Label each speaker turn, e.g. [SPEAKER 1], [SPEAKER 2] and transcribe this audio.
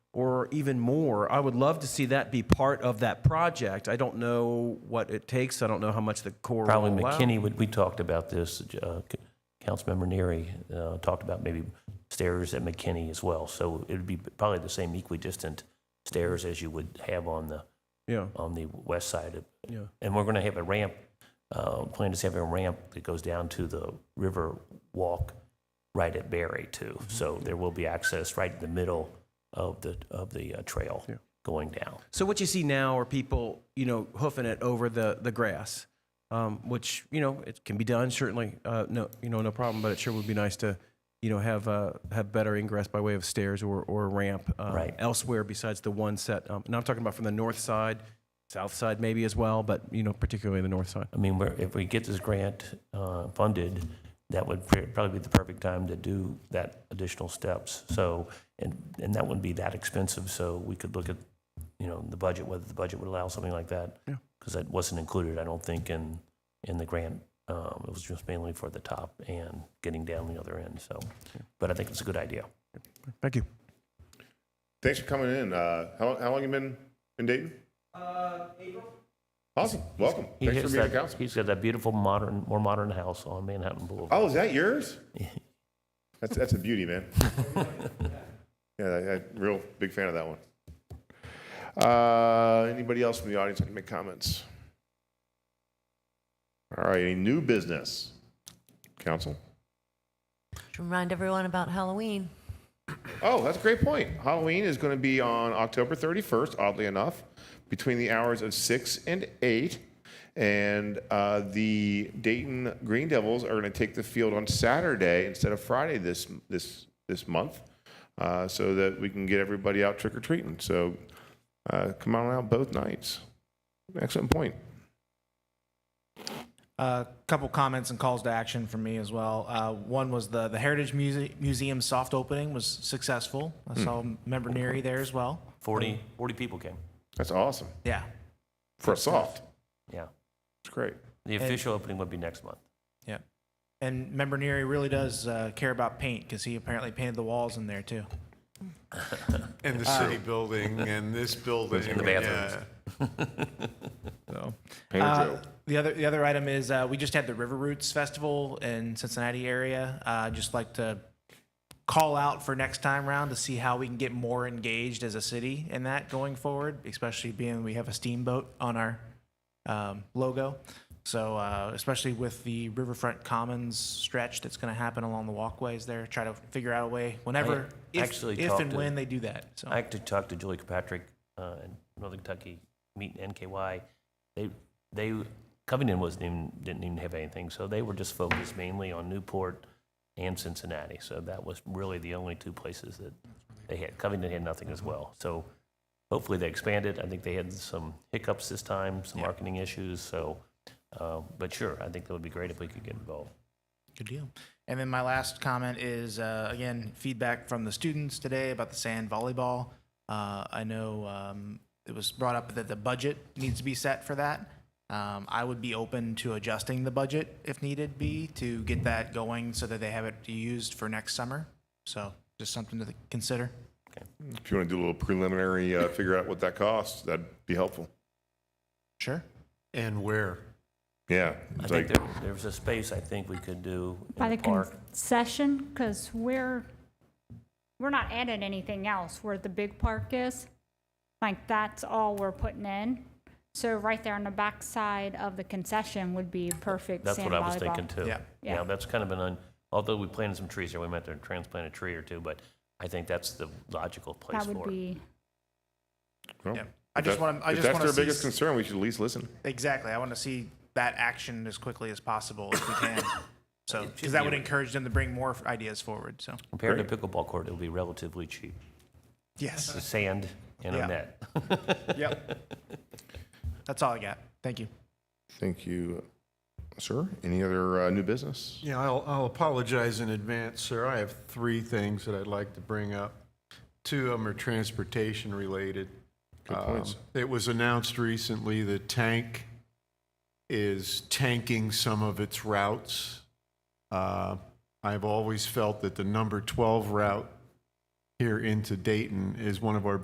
[SPEAKER 1] or even more. I would love to see that be part of that project. I don't know what it takes. I don't know how much the Corps
[SPEAKER 2] Probably
[SPEAKER 1] will allow.
[SPEAKER 2] McKinney, would- we talked about this, uh, C- Councilmember Neary uh, talked about maybe stairs at McKinney as well. So it'd be probably the same equidistant stairs as you would have on the,
[SPEAKER 1] Yeah,
[SPEAKER 2] on the west side of.
[SPEAKER 1] yeah.
[SPEAKER 2] And we're going to have a ramp, uh, plan is having a ramp that goes down to the river walk right at Berry too.
[SPEAKER 1] Mm-hmm.
[SPEAKER 2] So there will be access right in the middle of the, of the uh, trail
[SPEAKER 1] Yeah.
[SPEAKER 2] going down.
[SPEAKER 1] So what you see now are people, you know, hoofing it over the, the grass, um, which, you know, it can be done, certainly, uh, no, you know, no problem, but it sure would be nice to, you know, have, uh, have better ingress by way of stairs or, or a ramp um,
[SPEAKER 2] Right.
[SPEAKER 1] elsewhere besides the one set. Um, and I'm talking about from the north side, south side maybe as well, but, you know, particularly the north side.
[SPEAKER 2] I mean, we're, if we get this grant uh, funded, that would pr- probably be the perfect time to do that additional steps. So, and, and that wouldn't be that expensive, so we could look at, you know, the budget, whether the budget would allow something like that.
[SPEAKER 1] Yeah.
[SPEAKER 2] Because that wasn't included, I don't think, in, in the grant. Um, It was just mainly for the top and getting down the other end, so. But I think it's a good idea.
[SPEAKER 1] Thank you.
[SPEAKER 3] Thanks for coming in. Uh, how, long- how long you been in Dayton? Uh, April. Awesome. Welcome.
[SPEAKER 2] He
[SPEAKER 3] Thanks for
[SPEAKER 2] has
[SPEAKER 3] being on
[SPEAKER 2] that-
[SPEAKER 3] council.
[SPEAKER 2] He's got that beautiful modern, more modern house on Manhattan Boulevard.
[SPEAKER 3] Oh, is that yours? That's, that's a beauty, man. Oh. yeah, I, I, real big fan of that one. Uh, anybody else from the audience that can make comments? All right, any new business? Council.
[SPEAKER 4] To remind everyone about Halloween.
[SPEAKER 3] Oh, that's a great point. Halloween is going to be on October 31st, oddly enough, between the hours of 6 and 8. And uh, the Dayton Green Devils are going to take the field on Saturday instead of Friday this this this month, uh, so that we can get everybody out trick or treating. So uh, come on out both nights. Excellent point.
[SPEAKER 5] A couple comments and calls to action from me as well. Uh, one was the the Heritage Muse- Museum soft opening was successful. I saw member Neary there as well.
[SPEAKER 2] 40, 40 people came,
[SPEAKER 3] That's awesome
[SPEAKER 5] Yeah,
[SPEAKER 3] for a soft.
[SPEAKER 2] yeah.
[SPEAKER 3] It's great.
[SPEAKER 2] The official opening would be next month.
[SPEAKER 5] yeah. And member Neary really does uh, care about paint because he apparently painted the walls in there too.
[SPEAKER 6] And the city building and this building.
[SPEAKER 2] the bathrooms.
[SPEAKER 5] So
[SPEAKER 3] Painter
[SPEAKER 5] uh,
[SPEAKER 3] Joe.
[SPEAKER 5] the other the other item is uh, we just had the River Roots Festival in Cincinnati area. Uh, just like to call out for next time round to see how we can get more engaged as a city in that going forward, especially being we have a steamboat on our um, logo. So uh, especially with the Riverfront Commons stretch that's going to happen along the walkways there, try to figure out a way whenever,
[SPEAKER 2] I
[SPEAKER 5] if,
[SPEAKER 2] actually
[SPEAKER 5] if
[SPEAKER 2] talked
[SPEAKER 5] and
[SPEAKER 2] to-
[SPEAKER 5] when they do that. So
[SPEAKER 2] I actually talked to Julie Kirkpatrick uh, in Northern Kentucky, meet NKY. They, they, Covington wasn't even, didn't even have anything, so they were just focused mainly on Newport and Cincinnati. So that was really the only two places that they had. Covington had nothing as well. So hopefully they expanded. I think they had some hiccups this time, some marketing issues. So, uh, but sure, I think that would be great if we could get involved.
[SPEAKER 5] Good deal. And then my last comment is uh, again feedback from the students today about the sand volleyball. Uh, I know um, it was brought up that the budget needs to be set for that. Um, I would be open to adjusting the budget if needed be to get that going so that they have it used for next summer. So just something to consider.
[SPEAKER 3] If you want to do a little preliminary, uh, figure out what that costs, that'd be helpful.
[SPEAKER 5] Sure.
[SPEAKER 6] And where?
[SPEAKER 3] Yeah,
[SPEAKER 2] I think
[SPEAKER 3] it's like
[SPEAKER 2] there, there was a space I think we could do
[SPEAKER 7] by
[SPEAKER 2] in
[SPEAKER 7] the
[SPEAKER 2] the park.
[SPEAKER 7] concession, because we're, we're not adding anything else where the big park is. Like, that's all we're putting in. So right there on the backside of the concession would be perfect
[SPEAKER 2] That's
[SPEAKER 7] sand
[SPEAKER 2] what I was
[SPEAKER 7] volleyball.
[SPEAKER 2] thinking too.
[SPEAKER 5] Yeah.
[SPEAKER 2] Yeah,
[SPEAKER 7] Yeah.
[SPEAKER 2] that's kind of been un, although we planted some trees there, we might have to transplant a tree or two, but I think that's the logical place
[SPEAKER 7] That would
[SPEAKER 2] for it.
[SPEAKER 7] be,
[SPEAKER 3] Well,
[SPEAKER 5] Yeah. I
[SPEAKER 3] if
[SPEAKER 5] just
[SPEAKER 3] that-
[SPEAKER 5] wanna- I
[SPEAKER 3] if
[SPEAKER 5] just
[SPEAKER 3] that's
[SPEAKER 5] wanna
[SPEAKER 3] their
[SPEAKER 5] see
[SPEAKER 3] biggest
[SPEAKER 5] s-
[SPEAKER 3] concern. We should at least listen.
[SPEAKER 5] Exactly. I want to see that action as quickly as possible if we can. So
[SPEAKER 2] It should
[SPEAKER 5] because that
[SPEAKER 2] be-
[SPEAKER 5] would encourage them to bring more ideas forward. So
[SPEAKER 2] Compared to pickleball court, it'll be relatively cheap.
[SPEAKER 5] yes.
[SPEAKER 2] The sand and a
[SPEAKER 5] Yeah.
[SPEAKER 2] net.
[SPEAKER 5] Yep. That's all I got. Thank you.
[SPEAKER 3] Thank you, sir. Any other uh, new business?
[SPEAKER 6] Yeah, I'll, I'll apologize in advance, sir. I have three things that I'd like to bring up. Two of them are transportation related.
[SPEAKER 3] Good points.
[SPEAKER 6] Um, It was announced recently that Tank is tanking some of its routes. Uh, I've always felt that the number 12 route here into Dayton is one of our